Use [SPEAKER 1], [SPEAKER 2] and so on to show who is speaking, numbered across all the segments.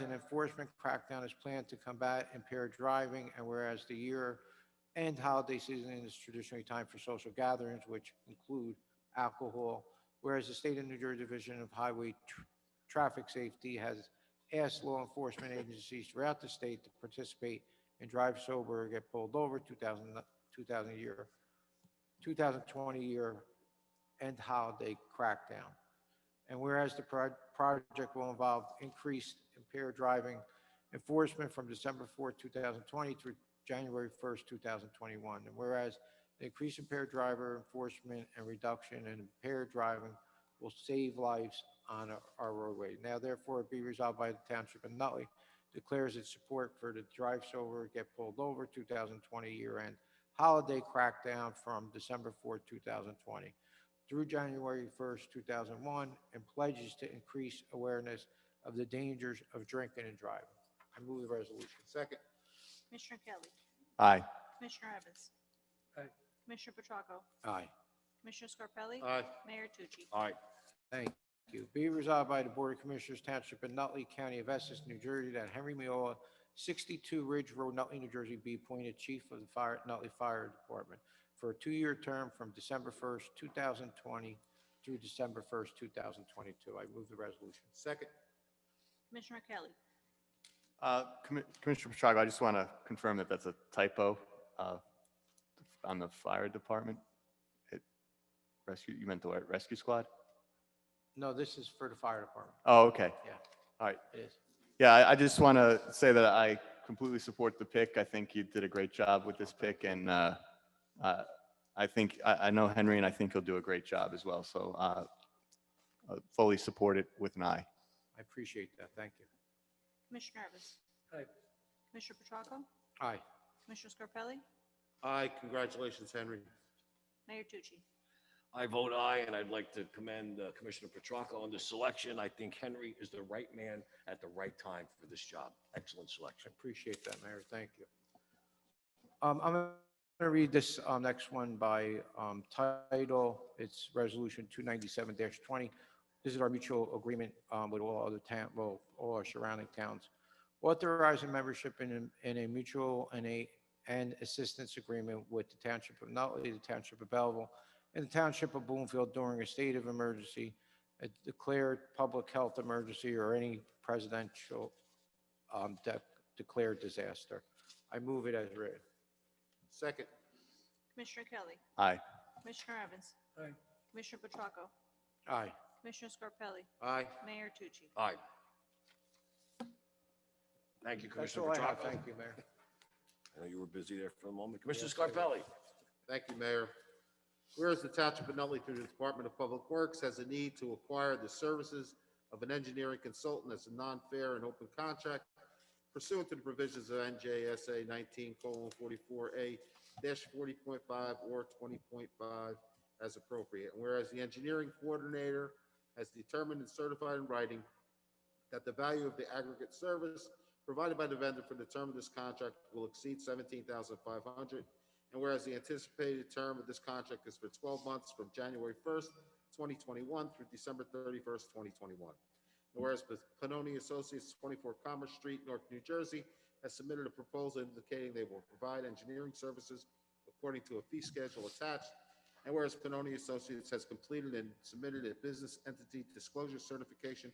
[SPEAKER 1] an enforcement crackdown is planned to combat impaired driving, and whereas the year-end holiday season is traditionally time for social gatherings, which include alcohol, whereas the State of New Jersey Division of Highway Tr- Traffic Safety has asked law enforcement agencies throughout the state to participate in drive sober or get pulled over 2000, 2000 year, 2020 year end holiday crackdown. And whereas the proj- project will involve increased impaired driving enforcement from December 4th, 2020 through January 1st, 2021. And whereas the increased impaired driver enforcement and reduction in impaired driving will save lives on our- our roadway. Now therefore be resolved by the Township of Nutley declares its support for the Drive Sober, Get Pulled Over 2020 year-end holiday crackdown from December 4th, 2020 through January 1st, 2001, and pledges to increase awareness of the dangers of drinking and driving. I move the resolution.
[SPEAKER 2] Second.
[SPEAKER 3] Commissioner Kelly.
[SPEAKER 4] aye,
[SPEAKER 3] Commissioner Evans.
[SPEAKER 2] Aye.
[SPEAKER 3] Commissioner Petracco.
[SPEAKER 1] Aye.
[SPEAKER 3] Commissioner Scarpelli.
[SPEAKER 2] Aye.
[SPEAKER 3] Mayor Tucci.
[SPEAKER 2] Aye.
[SPEAKER 1] Thank you. Be resolved by the Board of Commissioners Township of Nutley County of Essex, New Jersey, that Henry Miola, 62 Ridge Road, Nutley, New Jersey, be appointed Chief of the Fire, Nutley Fire Department for a two-year term from December 1st, 2020 through December 1st, 2022. I move the resolution.
[SPEAKER 2] Second.
[SPEAKER 3] Commissioner Kelly.
[SPEAKER 4] Uh, Commi- Commissioner Petracco, I just want to confirm that that's a typo uh, on the fire department. It- Rescue, you meant the word rescue squad?
[SPEAKER 1] No, this is for the fire department.
[SPEAKER 4] Oh, okay.
[SPEAKER 1] Yeah.
[SPEAKER 4] All right.
[SPEAKER 1] It is.
[SPEAKER 4] Yeah, I, I just want to say that I completely support the pick. I think you did a great job with this pick and uh, uh, I think, I, I know Henry and I think he'll do a great job as well. So uh, uh, fully support it with an eye.
[SPEAKER 1] I appreciate that. Thank you.
[SPEAKER 3] Commissioner Evans.
[SPEAKER 2] Aye.
[SPEAKER 3] Commissioner Petracco.
[SPEAKER 1] Aye.
[SPEAKER 3] Commissioner Scarpelli.
[SPEAKER 2] Aye. Congratulations, Henry.
[SPEAKER 3] Mayor Tucci.
[SPEAKER 5] I vote aye, and I'd like to commend uh, Commissioner Petracca on this selection. I think Henry is the right man at the right time for this job. Excellent
[SPEAKER 1] I
[SPEAKER 5] selection.
[SPEAKER 1] appreciate that, Mayor. Thank you. Um, I'm going to read this um, next one by um, title. It's Resolution 297-20. This is our mutual agreement um, with all other town, well, all our surrounding towns. Authorizing membership in, a- in a mutual and a, and assistance agreement with the Township of Nutley, the Township of Belleville, and the Township of Bloomfield during a state of emergency, a declared public health emergency, or any presidential um, de- declared disaster. I move it as written.
[SPEAKER 2] Second.
[SPEAKER 3] Commissioner Kelly.
[SPEAKER 4] Aye.
[SPEAKER 3] Commissioner Evans.
[SPEAKER 2] Aye.
[SPEAKER 3] Commissioner Petracco.
[SPEAKER 1] Aye.
[SPEAKER 3] Commissioner Scarpelli.
[SPEAKER 2] Aye.
[SPEAKER 3] Mayor Tucci.
[SPEAKER 5] Aye. Thank you,
[SPEAKER 1] That's
[SPEAKER 5] Commissioner
[SPEAKER 1] all I have.
[SPEAKER 5] Petracca.
[SPEAKER 1] Thank you, Mayor.
[SPEAKER 5] I know you were busy there for a moment. Commissioner Scarpelli.
[SPEAKER 2] Thank you, Mayor. Whereas the Township of Nutley through the Department of Public Works has a need to acquire the services of an engineering consultant as a non-fair and open contract pursuant to the provisions of NJSA nineteen forty-four A forty point five or twenty point five as appropriate. And whereas the engineering coordinator has determined and certified in writing that the value of the aggregate service provided by the vendor for the term of this contract will exceed seventeen thousand five hundred and whereas the anticipated term of this contract is for 12 months from January 1st, 2021 through December 31st, 2021. And whereas Panoni Associates, 24 Commerce Street, Newark, New Jersey, has submitted a proposal indicating they will provide engineering services according to a fee schedule attached. And whereas Panoni Associates has completed and submitted a business entity disclosure certification,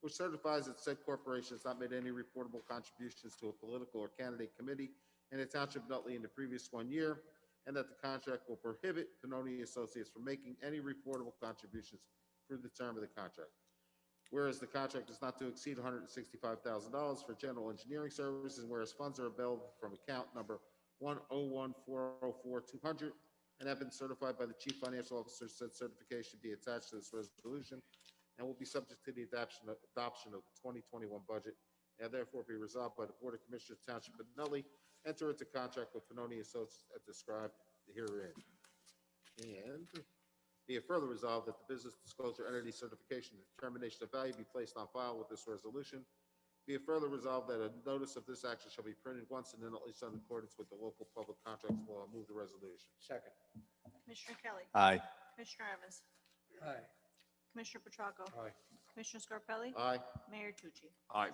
[SPEAKER 2] which certifies that said corporation has not made any reportable contributions to a political or candidate committee in the Township of Nutley in the previous one year, and that the contract will prohibit Panoni Associates from making any reportable contributions through the term of the contract. Whereas the contract is not to exceed $165,000 for general engineering services, and whereas funds are available from account number 101404200 and have been certified by the Chief Financial Officer, said certification be attached to this resolution and will be subject to the adoption, adoption of the 2021 budget, and therefore be resolved by the Board of Commissioners Township of Nutley enter into contract with Panoni Associates as described herein. And be it further resolved that the business disclosure entity certification and determination of value be placed on file with this resolution. Be it further resolved that a notice of this action shall be printed once and then at least in accordance with the local public contracts law. I Move the resolution.
[SPEAKER 1] Second.
[SPEAKER 3] Commissioner Kelly.
[SPEAKER 4] Aye.
[SPEAKER 3] Commissioner Evans.
[SPEAKER 1] Aye.
[SPEAKER 3] Commissioner Petracco.
[SPEAKER 1] Aye.
[SPEAKER 3] Commissioner Scarpelli.
[SPEAKER 2] Aye.
[SPEAKER 3] Mayor Tucci.
[SPEAKER 5] Aye.